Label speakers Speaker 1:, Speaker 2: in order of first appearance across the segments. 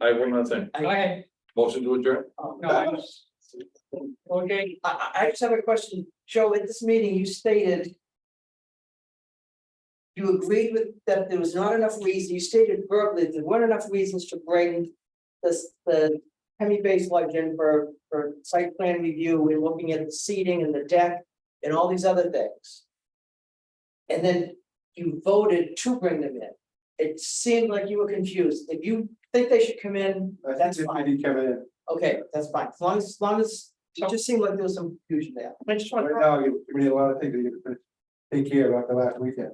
Speaker 1: I have one other thing.
Speaker 2: Go ahead.
Speaker 1: Motion to adjourn?
Speaker 2: Oh, no, I was- Okay,
Speaker 3: I, I, I just have a question. Joe, at this meeting, you stated. You agreed with, that there was not enough reason, you stated verbally, that there weren't enough reasons to bring this, the. Hemi base lodge in for, for site plan review, we're looking at the seating and the deck and all these other things. And then you voted to bring them in. It seemed like you were confused. If you think they should come in, that's fine.
Speaker 4: Kevin, in.
Speaker 3: Okay, that's fine, as long as, as long as, it just seemed like there was some confusion there.
Speaker 2: I just want,
Speaker 4: right now, you, we need a lot of things to get to take care of after last weekend.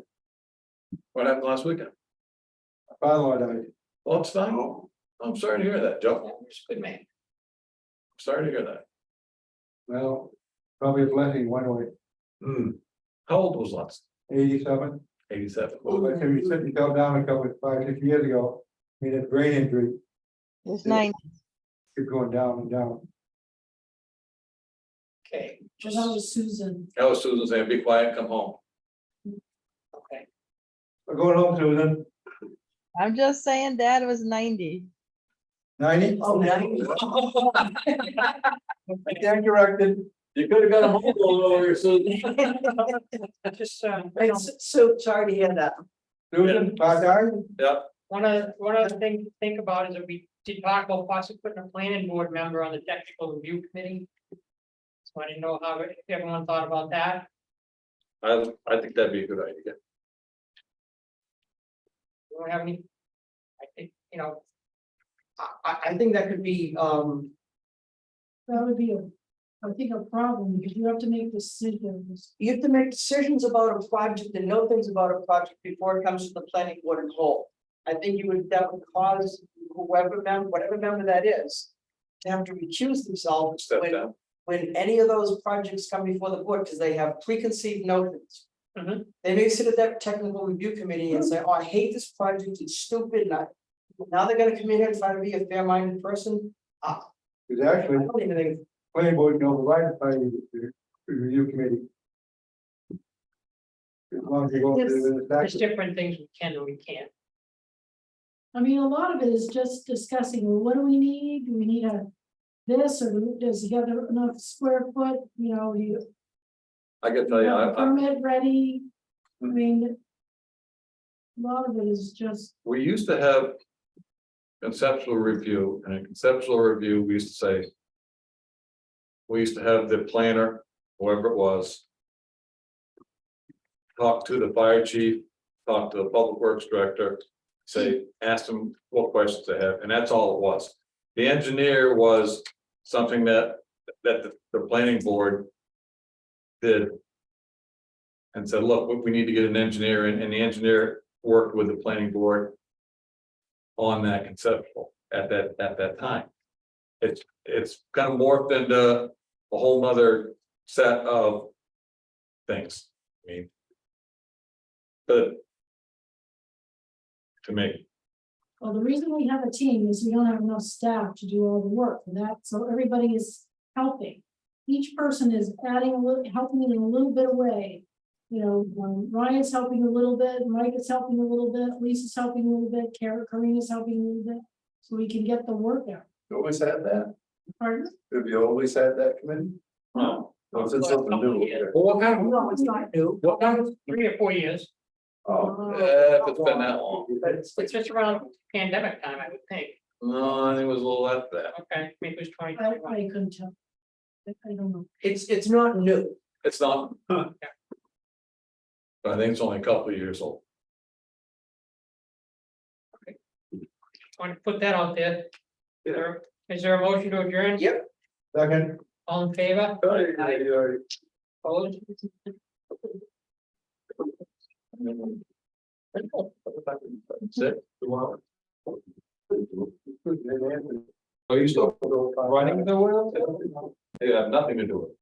Speaker 1: What happened last weekend?
Speaker 4: My Father-in-law died.
Speaker 1: Oh, it's fine. I'm sorry to hear that, Joe.
Speaker 2: good man.
Speaker 1: Sorry to hear that.
Speaker 4: Well, probably a blessing one way,
Speaker 1: Hmm. How old was Lance?
Speaker 4: eighty-seven.
Speaker 1: Eighty-seven.
Speaker 4: But if you sit yourself down a couple, five, six years ago, he had a brain injury,
Speaker 5: It's
Speaker 4: Yeah.
Speaker 5: nine
Speaker 4: kept going down and down.
Speaker 2: Okay,
Speaker 3: Just how was Susan?
Speaker 1: That was Susan saying, be quiet, come home.
Speaker 2: okay.
Speaker 4: We're going home, Susan,
Speaker 5: I'm just saying Dad was ninety.
Speaker 4: ninety?
Speaker 3: Oh, ninety.
Speaker 4: I stand corrected.
Speaker 1: You could have got a home over here, Susan.
Speaker 2: I just, uh,
Speaker 3: Right, so- so sorry to hear that.
Speaker 4: Susan, five times?
Speaker 2: one other, one other thing to think about is that we did talk about possibly putting a planning board member on the technical review committee. So I didn't know how, if everyone thought about that.
Speaker 1: I, I think that'd be a good idea.
Speaker 2: You don't have any? I think, you know,
Speaker 3: I, I, I think that could be, um,
Speaker 6: That would be a, I think a problem, because you have to make decisions.
Speaker 3: you have to make decisions about a project and know things about a project before it comes to the planning board and whole. I think you would, that would cause whoever member, whatever member that is, to have to recuse themselves
Speaker 1: Step
Speaker 3: when,
Speaker 1: down.
Speaker 3: when any of those projects come before the board, because they have preconceived notions.
Speaker 2: Mhm.
Speaker 3: They may sit at that technical review committee and say, oh, I hate this project, it's stupid, and I, now they're gonna come in here and try to be a fair-minded person.
Speaker 4: Because
Speaker 3: I
Speaker 4: actually,
Speaker 3: don't even think,
Speaker 4: planning board can override the planning review committee. As long as you go through the
Speaker 2: there's
Speaker 4: statute.
Speaker 2: different things we can and we can't.
Speaker 6: I mean, a lot of it is just discussing, well, what do we need? Do we need a this, or does he have enough square foot, you know, you
Speaker 1: I can tell you, Oh, I, Mm.
Speaker 6: have a
Speaker 1: I,
Speaker 6: permit ready? I mean, a lot of it is just,
Speaker 1: we used to have. Conceptual review and in conceptual review, we used to say. We used to have the planner, whoever it was. Talk to the fire chief, talk to the public works director, say, ask them what questions they have, and that's all it was. The engineer was something that, that the, the planning board. Did. And said, look, we- we need to get an engineer, and, and the engineer worked with the planning board. On that conceptual at that, at that time. It's, it's kind of morphed into a whole nother set of. Things, I mean. But. To me,
Speaker 6: well, the reason we have a team is we don't have enough staff to do all the work, and that, so everybody is helping. Each person is adding a little, helping in a little bit of way. you know, um, Ryan's helping a little bit, Mike is helping a little bit, Lisa's helping a little bit, Kara, Karina's helping a little bit. So we can get the work out.
Speaker 4: Always had that,
Speaker 6: Pardon?
Speaker 4: have you always had that committee?
Speaker 1: well,
Speaker 4: Well, it's
Speaker 2: Well,
Speaker 4: something
Speaker 2: couple
Speaker 4: new.
Speaker 2: years.
Speaker 1: what kind of,
Speaker 3: no, it's not new.
Speaker 1: what kind of,
Speaker 2: Three or four years,
Speaker 4: Oh.
Speaker 1: uh, if it's been that long,
Speaker 3: But it's,
Speaker 2: it's just around pandemic time, I would think.
Speaker 1: no, I think it was a little after that,
Speaker 2: Okay, maybe it was twenty
Speaker 6: I,
Speaker 2: twenty one.
Speaker 6: I couldn't tell. I I don't know.
Speaker 3: it's, it's not new.
Speaker 1: it's not. But I think it's only a couple of years old.
Speaker 2: Want to put that out there. Is there- Is there a motion to adjourn?
Speaker 3: Yep.
Speaker 4: Second.
Speaker 2: All in favor?
Speaker 4: Oh,
Speaker 2: Opposed?
Speaker 1: Six, two hours. Are you still running the world? They have nothing to do with it.